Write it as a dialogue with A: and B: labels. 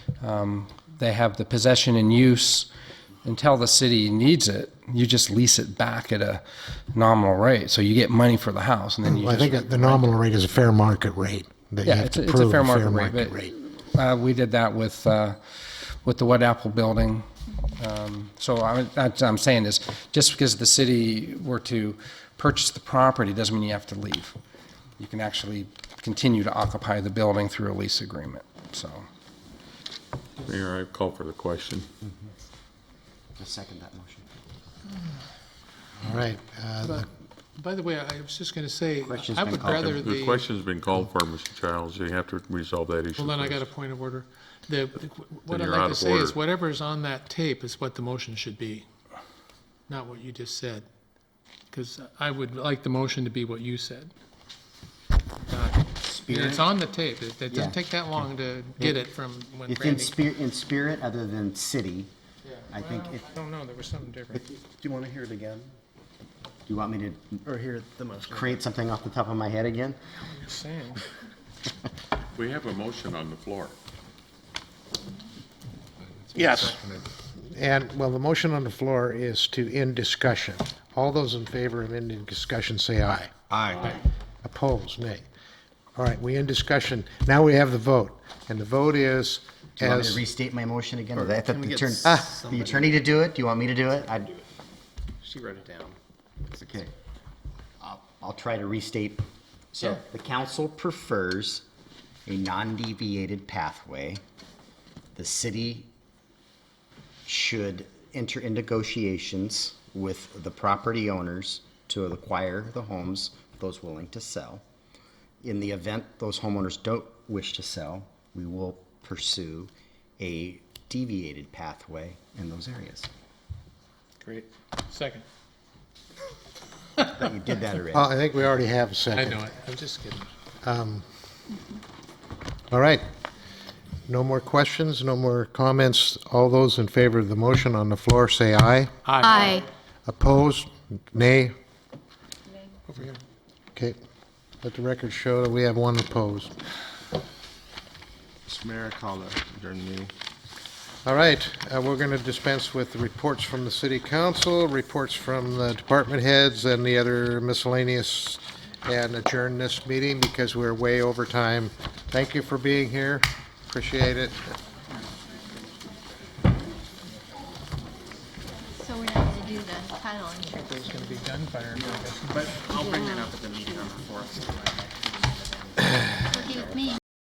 A: Um, They have the possession and use until the city needs it. You just lease it back at a nominal rate. So you get money for the house and then you
B: Well, I
A: just.
B: think that the nominal rate is a fair market rate. That you
A: Yeah,
B: have
A: it's,
B: to
A: a- it's a
B: prove
A: fair market rate. but, Uh, we did that with, uh, with the Wet Apple building. Um, so I, that's, what I'm saying is, just because the city were to purchase the property doesn't mean you have to leave. You can actually continue to occupy the building through a lease agreement, so.
C: Mayor, I call for the question.
D: I second that motion.
B: All right. uh, the-
E: By the way, I was just going to say,
D: Question's
E: I
D: been
E: would
D: called.
E: rather the.
C: The question's been called for, Mr. Childs. You have to resolve that issue.
E: Well, then I
C: first.
E: got a point of order. The, what I'd
C: you're
E: like
C: out
E: to
C: of
E: say is
C: order.
E: whatever's on that tape is what the motion should be, not what you just said. Because I would like the motion to be what you said. Not- and It's on the tape. It it
D: Yeah.
E: doesn't take that long to get it from when
D: It's in
E: Randy.
D: spirit, in spirit other than city. I think
E: Well,
D: it,
E: I don't know, there was something different.
F: Do you want to hear it again,
D: do you want me to
F: or hear the motion?
D: create something off the top of my head again?
E: You're saying.
C: We have a motion on the floor.
B: Yes. And, well, the motion on the floor is to end discussion. All those in favor of ending discussion, say aye.
F: Aye.
B: Opposed, nay. All right, we end discussion. Now we have the vote, and the vote is
D: Do you want me to
B: as,
D: restate my motion again? Or do I have to
F: Can we get
D: turn-
F: Ah.
D: the attorney to do it? Do you want me to do it? I,
F: She wrote it down.
D: okay. I'll- I'll try to restate. So the council prefers a non-deviated pathway. The city should enter in negotiations with the property owners to acquire the homes, those willing to sell. In the event those homeowners don't wish to sell, we will pursue a deviated pathway in those areas.
E: Great. Second.
D: But you did that already.
B: Oh, I think we already have a
E: I
B: second.
E: know it. I'm just kidding.
B: All right. No more questions, no more comments. All those in favor of the motion on the floor, say aye.
G: Aye.
B: Opposed? Nay?
E: Over here.
B: Okay. Let the record show that we have one opposed.
F: Mr. Mayor, I call the adjourned meeting.
B: All right, uh, we're going to dispense with the reports from the city council, reports from the department heads and the other miscellaneous, and adjourn this meeting because we're way over time. Thank you for being here. Appreciate it.
G: So we're not to do the title insurance.
E: There's going to be gunfire.
G: Forgive me.